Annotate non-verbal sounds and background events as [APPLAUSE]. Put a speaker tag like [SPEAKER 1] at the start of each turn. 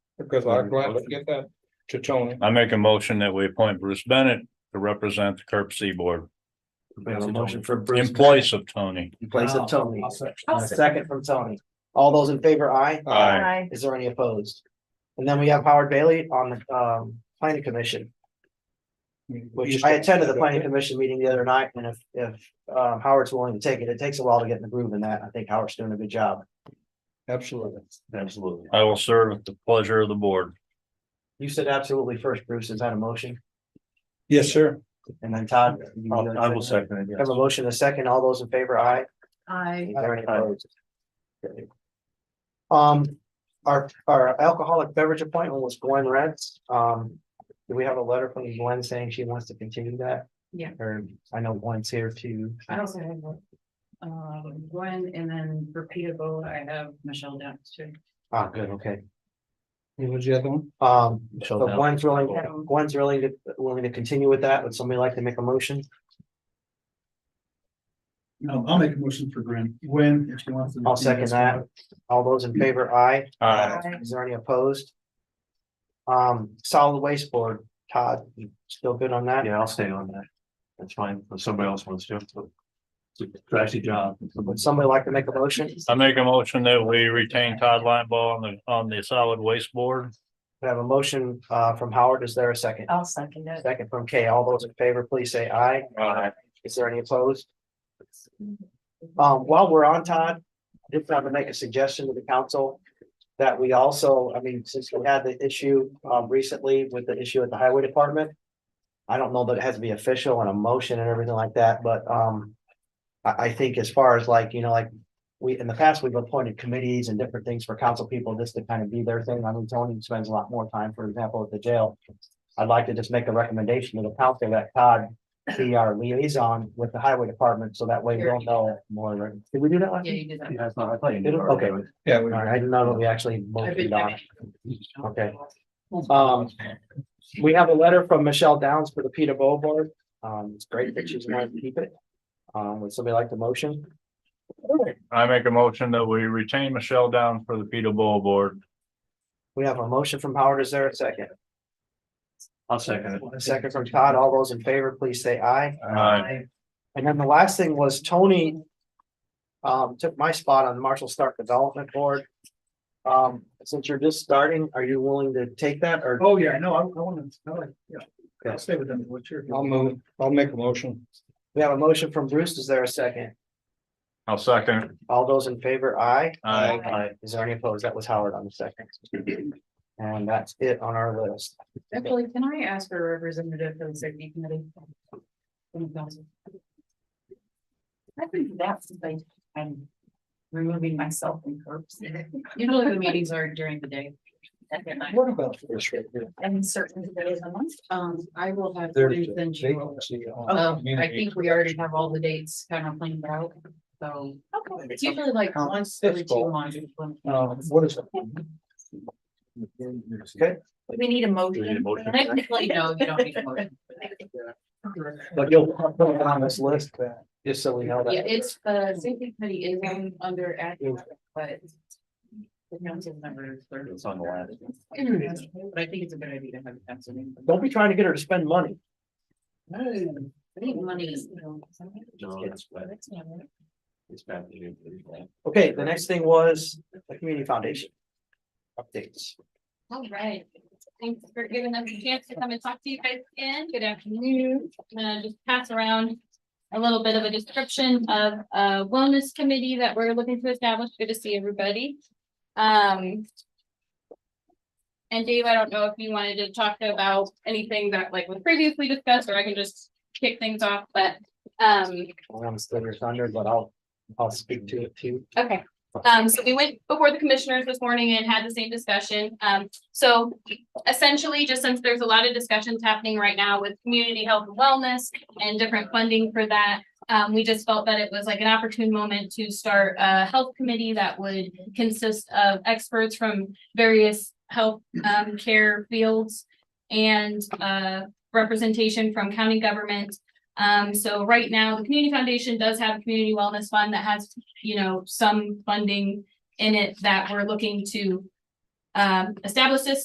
[SPEAKER 1] because I'd like to get that to Tony.
[SPEAKER 2] I make a motion that we appoint Bruce Bennett to represent the Curb Sea Board
[SPEAKER 3] We have a motion for Bruce.
[SPEAKER 2] in place of Tony.
[SPEAKER 3] In place of Tony.
[SPEAKER 4] I'll second.
[SPEAKER 3] And a second from Tony. All those in favor, aye.
[SPEAKER 2] Aye.
[SPEAKER 5] Aye.
[SPEAKER 3] Is there any opposed? And then we have Howard Bailey on the um planning commission, which I attended the planning commission meeting the other night, and if if um Howard's willing to take it, it takes a while to get in the groove in that. I think Howard's doing a good job.
[SPEAKER 1] Absolutely.
[SPEAKER 4] Absolutely.
[SPEAKER 2] I will serve at the pleasure of the board.
[SPEAKER 3] You said absolutely first, Bruce, is that a motion?
[SPEAKER 1] Yes, sir.
[SPEAKER 3] And then Todd? you-
[SPEAKER 4] I'll- I will second it, yes.
[SPEAKER 3] Have a motion, a second, all those in favor, aye.
[SPEAKER 5] Aye.
[SPEAKER 3] Is there any
[SPEAKER 4] Aye.
[SPEAKER 3] opposed? Um, our, our alcoholic beverage appointment was Gwen Reds. Um, do we have a letter from Gwen saying she wants to continue that?
[SPEAKER 5] Yeah.
[SPEAKER 3] Or I know Gwen's here too.
[SPEAKER 6] I also have one. Um, Gwen and then repeatable, I have Michelle down too.
[SPEAKER 3] Ah, good, okay.
[SPEAKER 1] What was the other one?
[SPEAKER 3] Um,
[SPEAKER 4] Michelle
[SPEAKER 3] so
[SPEAKER 4] Dowd.
[SPEAKER 3] Gwen's willing,
[SPEAKER 6] Dowd.
[SPEAKER 3] Gwen's willing to, willing to continue with that. Would somebody like to make a motion?
[SPEAKER 4] No, I'll make a motion for Gwen, Gwen, if she wants to.
[SPEAKER 3] I'll second that. All those in favor, aye.
[SPEAKER 2] Aye.
[SPEAKER 3] Is there any opposed? Um, solid waste board, Todd, you still good on that?
[SPEAKER 4] Yeah, I'll stay on that. That's fine, if somebody else wants to. It's a Trashy job.
[SPEAKER 3] Would somebody like to make a motion?
[SPEAKER 2] I make a motion that we retain Todd Linebaugh on the, on the solid waste board.
[SPEAKER 3] We have a motion uh from Howard. Is there a second?
[SPEAKER 6] I'll second it.
[SPEAKER 3] Second from Kay. All those in favor, please say aye.
[SPEAKER 2] Aye.
[SPEAKER 3] Is there any opposed? Um, while we're on, Todd, I did want to make a suggestion to the council. That we also, I mean, since we had the issue um recently with the issue at the highway department. I don't know that it has to be official and a motion and everything like that, but um. I I think as far as like, you know, like, we, in the past, we've appointed committees and different things for council people just to kind of be their thing. I mean, Tony spends a lot more time, for example, at the jail. I'd like to just make a recommendation to the council that Todd be our liaison with the highway department, so that way we don't know more. Did we do that last?
[SPEAKER 6] Yeah,
[SPEAKER 3] week?
[SPEAKER 6] you did that.
[SPEAKER 4] Yeah, it's not, I thought you knew.
[SPEAKER 3] Okay.
[SPEAKER 1] Yeah.
[SPEAKER 3] All
[SPEAKER 1] we-
[SPEAKER 3] right, I did not know that we actually
[SPEAKER 6] I've
[SPEAKER 3] voted
[SPEAKER 6] been-
[SPEAKER 3] on. it.
[SPEAKER 6] I've
[SPEAKER 3] Okay.
[SPEAKER 6] been-
[SPEAKER 3] Um, we have a letter from Michelle Downs for the PETA Bowl Board. Um, it's great that she's wanting to keep it. Um, would somebody like the motion?
[SPEAKER 2] I make a motion that we retain Michelle down for the Peter Bowl Board.
[SPEAKER 3] We have a motion from Howard. Is there a second?
[SPEAKER 4] I'll second it.
[SPEAKER 3] A second from Todd. All those in favor, please say aye.
[SPEAKER 2] Aye.
[SPEAKER 3] And then the last thing was Tony. Um, took my spot on the Marshall Stark Development Board. Um, since you're just starting, are you willing to take that or?
[SPEAKER 4] Oh, yeah, no, I, I want to, I like, yeah,
[SPEAKER 3] I'll
[SPEAKER 4] stay with them, what's your?
[SPEAKER 1] I'll move, I'll make a motion.
[SPEAKER 3] We have a motion from Bruce. Is there a second?
[SPEAKER 2] I'll second.
[SPEAKER 3] All those in favor, aye.
[SPEAKER 2] Aye.
[SPEAKER 3] Is there any opposed? That was Howard on the second. And that's it on our list.
[SPEAKER 6] Actually, can I ask for a representative for the safety committee? From the council? I think that's, like, I'm removing myself from curbs. Usually the meetings are during the day.
[SPEAKER 1] What about this right here?
[SPEAKER 6] [LAUGHS] And certain days a month, um, I will have.
[SPEAKER 1] There's
[SPEAKER 6] Ruth
[SPEAKER 1] a
[SPEAKER 6] and Jill.
[SPEAKER 1] vacancy
[SPEAKER 4] Oh,
[SPEAKER 1] on
[SPEAKER 6] Um, I
[SPEAKER 1] community.
[SPEAKER 6] think we already have all the dates kind of planned out, so it's usually like
[SPEAKER 4] Oh,
[SPEAKER 1] Um,
[SPEAKER 6] once every
[SPEAKER 1] difficult.
[SPEAKER 6] two months. [LAUGHS]
[SPEAKER 1] Um, what is it?
[SPEAKER 3] Okay,
[SPEAKER 5] We need a motion.
[SPEAKER 4] We need a motion.
[SPEAKER 5] for that?
[SPEAKER 6] Technically, no, you don't need a motion.
[SPEAKER 3] but you'll put it on this list, just so we know
[SPEAKER 6] Yeah,
[SPEAKER 3] that.
[SPEAKER 6] it's, the safety committee is on- under active, but. The council member is third.
[SPEAKER 4] It's on the last.
[SPEAKER 6] But I think it's a good idea to have a council. member.
[SPEAKER 3] Don't be trying to get her to spend money.
[SPEAKER 6] I think money is, you know.
[SPEAKER 4] No, that's bad. It's bad.
[SPEAKER 3] Okay, the next thing was the community foundation. Updates.
[SPEAKER 7] All right, thanks for giving us a chance to come and talk to you guys again. Good afternoon. I'm gonna just pass around a little bit of a description of a wellness committee that we're looking to establish. Good to see everybody. Um. And Dave, I don't know if you wanted to talk about anything that like was previously discussed, or I can just kick things off, but um.
[SPEAKER 3] I'm still your thunder, but I'll, I'll speak to it too.
[SPEAKER 7] Okay, um, so we went before the commissioners this morning and had the same discussion. Um, so essentially, just since there's a lot of discussions happening right now with community health and wellness and different funding for that, um, we just felt that it was like an opportune moment to start a health committee that would consist of experts from various health, um, care fields and, uh, representation from county government. Um, so right now, the Community Foundation does have a community wellness fund that has you know, some funding in it that we're looking to um, establish this